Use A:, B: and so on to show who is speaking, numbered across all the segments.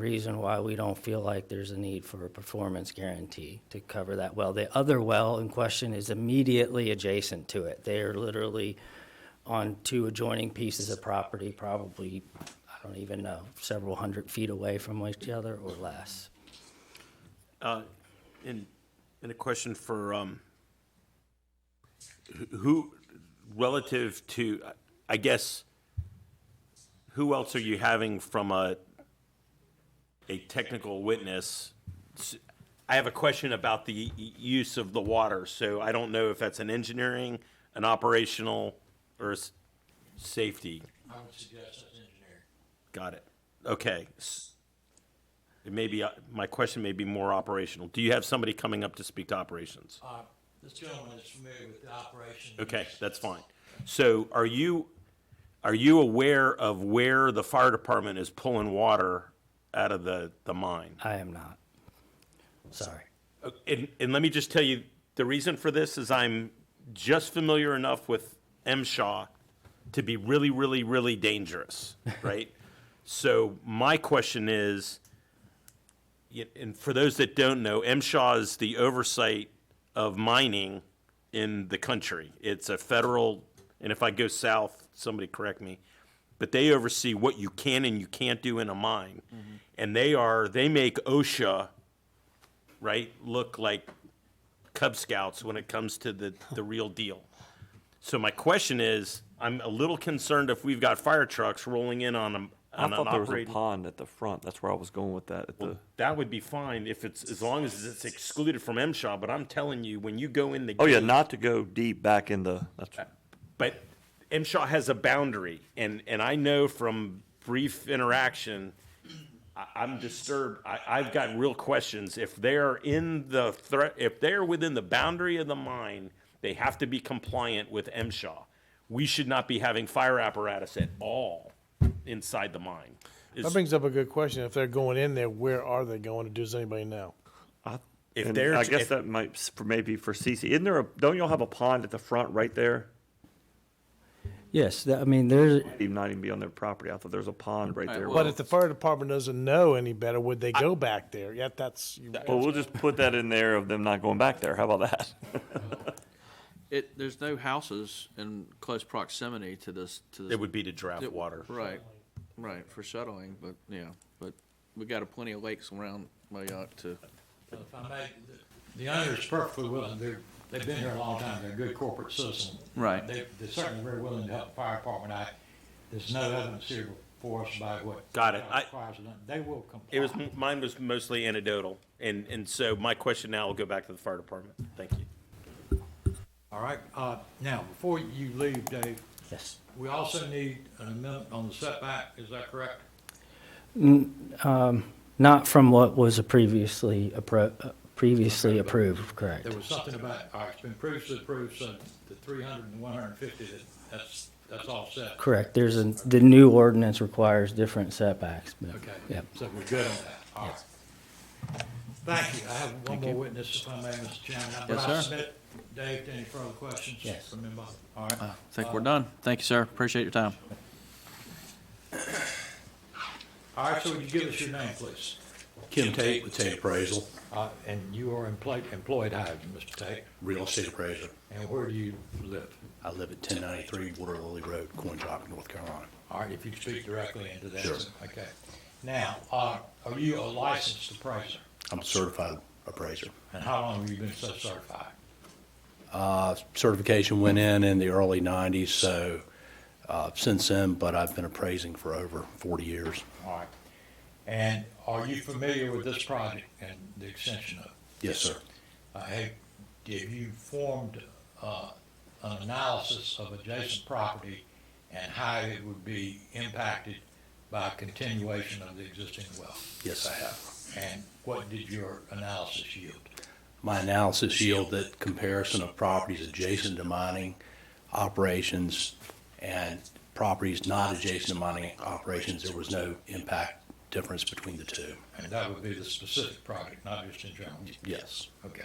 A: reason why we don't feel like there's a need for a performance guarantee to cover that well. The other well in question is immediately adjacent to it. They are literally on two adjoining pieces of property, probably, I don't even know, several hundred feet away from each other or less.
B: Uh, And, and a question for, um, wh- who, relative to, I guess, who else are you having from a, a technical witness? S- I have a question about the y- y- use of the water, so I don't know if that's an engineering, an operational, or a s- safety.
C: I would suggest an engineer.
B: Got it. Okay. S- It may be, uh, my question may be more operational. Do you have somebody coming up to speak to operations?
C: Uh, this gentleman is familiar with the operation.
B: Okay, that's fine. So are you, are you aware of where the fire department is pulling water out of the, the mine?
A: I am not. Sorry.
B: Uh, And, and let me just tell you, the reason for this is I'm just familiar enough with M. Shaw to be really, really, really dangerous, right? so my question is, y- and for those that don't know, M. Shaw is the oversight of mining in the country. It's a federal, and if I go south, somebody correct me, but they oversee what you can and you can't do in a mine,
D: Mm-hmm.
B: and they are they make OSHA right, look like Cub Scouts when it comes to the, the real deal. So my question is, I'm a little concerned if we've got fire trucks rolling in on them.
D: I
B: On an
D: thought there was a
B: operating,
D: pond at the front. That's where I was going with that. At the,
B: that would be fine if it's as long as it's excluded from MSHA. But I'm telling you, when you go in the
D: oh yeah,
B: gate-
D: not to go deep back in the. That's,
B: Uh, but MSHA has a boundary, and, and I know from brief interaction, I, I'm disturbed. I, I've got real questions. If they're in the threat, if they're within the boundary of the mine, they have to be compliant with MSHA. We should not be having fire apparatus at all inside the mine. Is-
E: That brings up a good question. If they're going in there, where are they going to? Does anybody know?
D: I,
B: If
D: and
B: there's-
D: I guess
B: if-
D: that might s- for maybe for CC. Isn't there a? Don't y'all have a pond at the front right there?
A: Yes, that- I mean, there's,
D: Even not even be on their property. I thought there's a pond right there.
E: But if the fire department doesn't know any better, would they go back there? Yeah, that's. you-
D: well, we'll just put that in there of them not going back there. How about that?
F: It, there's no houses in close proximity to this, to this.
B: It would be to draft water.
F: Right, right, for shuttling, but, yeah, but we got a plenty of lakes around my yacht to,
C: If I may, the owner is perfectly willing, they're, they've been here a long time, they're a good corporate citizen.
F: Right.
C: They, they're certainly very willing to help the fire department out. There's no evidence here for us by what.
B: Got it. I-
C: requires of them. They will comply.
B: It was mine was mostly anecdotal, and and so my question now will go back to the fire department. Thank you.
C: All right, uh, now, before you leave, Dave,
A: yes.
C: we also need an amendment on the setback, is that correct?
A: Not from what was previously, appro- uh, previously approved, correct.
C: There was something about, all right, it's been previously approved, so the 300 and 150. that, that's, that's all set.
A: Correct, there's a, the new ordinance requires different setbacks. but-
C: Okay.
A: Yep.
C: So we're good on that, all right. Thank you, I have one more witness, if I may, Mr. Chairman. Would I
F: sir.
C: submit, Dave, to any further questions?
A: Yes.
C: From anybody? All right.
F: I think we're done. Thank you, sir. Appreciate your time.
C: All right, so would you give us your name, please?
G: Kim Tate with Tate Appraisal,
C: Uh, And you are employed, employed how, Mr. Tate?
G: real estate appraiser.
C: And where do you live?
G: I live at 1093 Water Lily Road, Coin Rock, North Carolina.
C: All right, if you could speak directly into that.
G: Sure.
C: Okay. Now, uh, are you a licensed appraiser?
G: I'm a certified appraiser.
C: And how long have you been so certified?
G: Uh, Certification went in in the early 90s, so uh, since then, but I've been appraising for over 40 years.
C: All right. And are you familiar with this project and the extension of it?
G: Yes, sir.
C: Uh, Have have you formed uh, an analysis of adjacent property and how it would be impacted by continuation of the existing well?
G: Yes, I have.
C: And what did your analysis yield?
G: My analysis yielded that comparison of properties adjacent to mining operations and properties not adjacent to mining operations, there was no impact difference between the two.
C: And that would be the specific project, not just in general?
G: Yes.
C: Okay.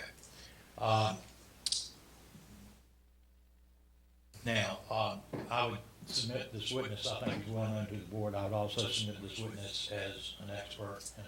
C: Um, Now, um, I would submit this witness, I think he's well known to the board, I would also submit this witness as an expert and